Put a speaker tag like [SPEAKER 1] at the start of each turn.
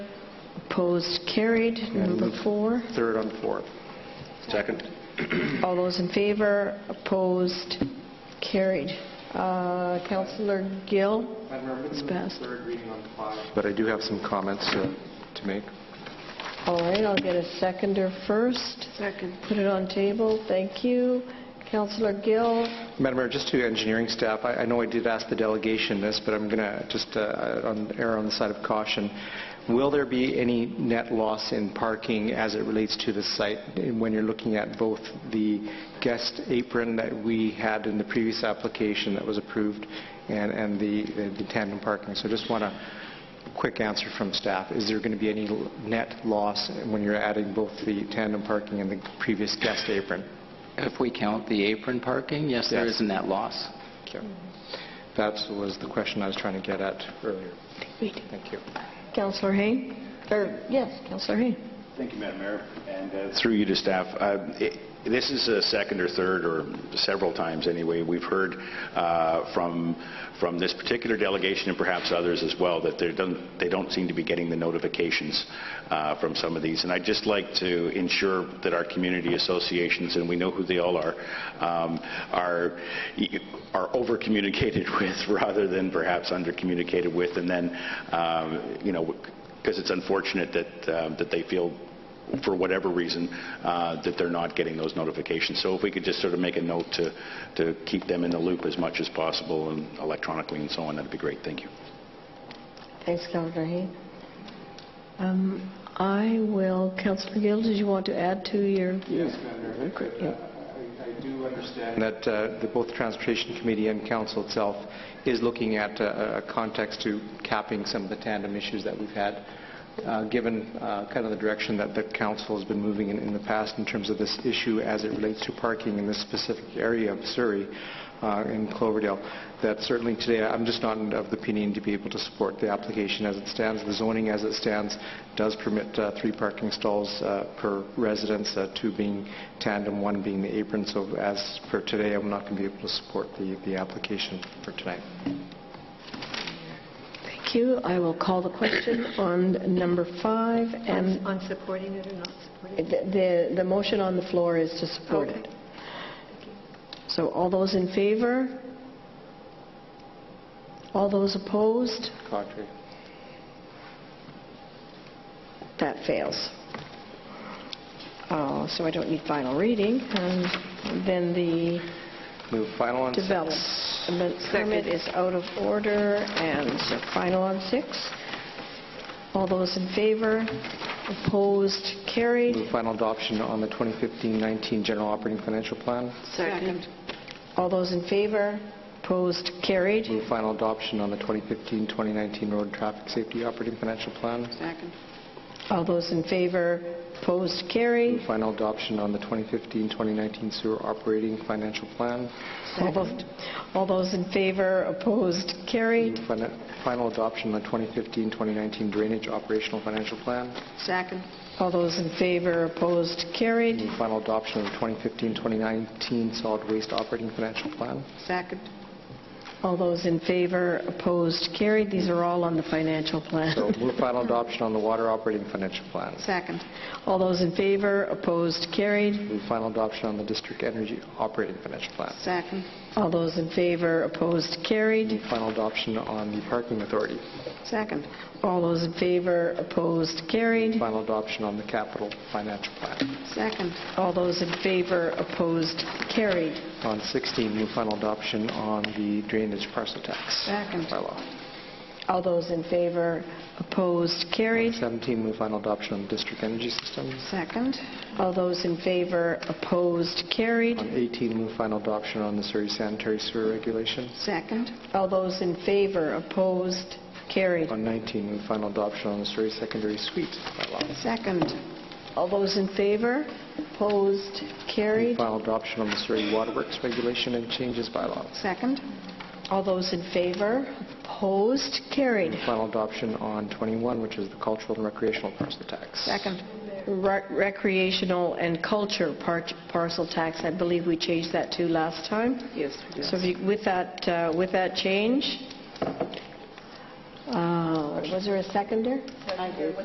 [SPEAKER 1] Opposed, carried. Number four.
[SPEAKER 2] Third on fourth. Second.
[SPEAKER 1] All those in favor, opposed, carried. Uh, Counselor Gill? It's passed.
[SPEAKER 2] But I do have some comments uh, to make.
[SPEAKER 1] All right, I'll get a seconder first. Second. Put it on table, thank you. Counselor Gill,
[SPEAKER 2] Madam Mayor, just to engineering staff, I I know I did ask the delegation this, but I'm going to just uh, on- err on the side of caution. Will there be any net loss in parking as it relates to the site when you're looking at both the guest apron that we had in the previous application that was approved and and the the tandem parking? So just want a quick answer from staff. Is there going to be any l- net loss when you're adding both the tandem parking and the previous guest apron?
[SPEAKER 3] If we count the apron parking, yes, there
[SPEAKER 2] Yes.
[SPEAKER 3] is a net loss.
[SPEAKER 2] Thank you. That was the question I was trying to get at earlier. Thank you.
[SPEAKER 1] Counselor Hain? Or, yes, Counselor Hain.
[SPEAKER 4] Thank you, Madam Mayor, and uh, through you to staff. Uh, it- This is a second or third, or several times anyway, we've heard uh, from, from this particular delegation and perhaps others as well, that they don't, they don't seem to be getting the notifications uh, from some of these. And I'd just like to ensure that our community associations, and we know who they all are, um, are, are over-communicated with rather than perhaps under-communicated with. And then, um, you know, because it's unfortunate that, um, that they feel, for whatever reason, uh, that they're not getting those notifications. So if we could just sort of make a note to, to keep them in the loop as much as possible and electronically and so on, that'd be great. Thank you.
[SPEAKER 1] Thanks, Counselor Hain. Um, I will, Counselor Gill, did you want to add to your?
[SPEAKER 2] Yes, Madam Mayor. I do understand. That uh, the- both the Transportation Committee and council itself is looking at uh, a context to capping some of the tandem issues that we've had, uh, given uh, kind of the direction that the council has been moving in in the past in terms of this issue as it relates to parking in this specific area of Surrey uh, in Cloverdale, that certainly today, I'm just not of the opinion to be able to support the application as it stands. The zoning as it stands does permit uh, three parking stalls uh, per residence, uh, two being tandem, one being the apron. So as for today, I'm not going to be able to support the the application for tonight.
[SPEAKER 1] Thank you. I will call the question on number five, and
[SPEAKER 5] On supporting it or not supporting it?
[SPEAKER 1] the, the motion on the floor is to support it.
[SPEAKER 5] Okay.
[SPEAKER 1] So all those in favor? All those opposed?
[SPEAKER 2] Contrary.
[SPEAKER 1] That fails. Oh, So I don't need final reading. And then the
[SPEAKER 2] Move final on six.
[SPEAKER 1] development permit is out of order, and so final on six. All those in favor? Opposed? Carried.
[SPEAKER 2] Move final adoption on the 2015-19 general operating financial plan.
[SPEAKER 5] Second.
[SPEAKER 1] All those in favor? Opposed? Carried.
[SPEAKER 2] Move final adoption on the 2015-2019 road traffic safety operating financial plan.
[SPEAKER 5] Second.
[SPEAKER 1] All those in favor? Opposed? Carried.
[SPEAKER 2] Move final adoption on the 2015-2019 sewer operating financial plan.
[SPEAKER 1] All those- All those in favor? Opposed? Carried.
[SPEAKER 2] Move fin- Final adoption on the 2015-2019 drainage operational financial plan.
[SPEAKER 5] Second.
[SPEAKER 1] All those in favor, opposed, carried.
[SPEAKER 2] Move final adoption of the 2015-2019 solid waste operating financial plan.
[SPEAKER 5] Second.
[SPEAKER 1] All those in favor, opposed, carried. These are all on the financial
[SPEAKER 2] So
[SPEAKER 1] plan.
[SPEAKER 2] move final adoption on the water operating financial plan.
[SPEAKER 5] Second.
[SPEAKER 1] All those in favor, opposed, carried.
[SPEAKER 2] Move final adoption on the district energy operating financial plan.
[SPEAKER 5] Second.
[SPEAKER 1] All those in favor, opposed, carried.
[SPEAKER 2] Move final adoption on the parking authority.
[SPEAKER 5] Second.
[SPEAKER 1] All those in favor, opposed, carried.
[SPEAKER 2] Final adoption on the capital financial plan.
[SPEAKER 5] Second.
[SPEAKER 1] All those in favor, opposed, carried.
[SPEAKER 2] On 16, move final adoption on the drainage parcel tax
[SPEAKER 5] Second.
[SPEAKER 2] bylaw.
[SPEAKER 1] All those in favor, opposed, carried.
[SPEAKER 2] 17, move final adoption on district energy systems.
[SPEAKER 5] Second.
[SPEAKER 1] All those in favor, opposed, carried.
[SPEAKER 2] On 18, move final adoption on the Surrey sanitary sewer regulations.
[SPEAKER 5] Second.
[SPEAKER 1] All those in favor, opposed, carried.
[SPEAKER 2] On 19, move final adoption on the Surrey secondary suite bylaw.
[SPEAKER 5] Second.
[SPEAKER 1] All those in favor? Opposed?
[SPEAKER 2] Move
[SPEAKER 1] Carried.
[SPEAKER 2] final adoption on the Surrey waterworks regulation and changes bylaw.
[SPEAKER 5] Second.
[SPEAKER 1] All those in favor? Opposed? Carried.
[SPEAKER 2] Move Final adoption on 21, which is the cultural and recreational parcel tax.
[SPEAKER 5] Second.
[SPEAKER 1] Re- Recreational and culture par- parcel tax, I believe we changed that to last time.
[SPEAKER 5] Yes.
[SPEAKER 1] So if you- with that, uh, with that change, uh, was there a seconder?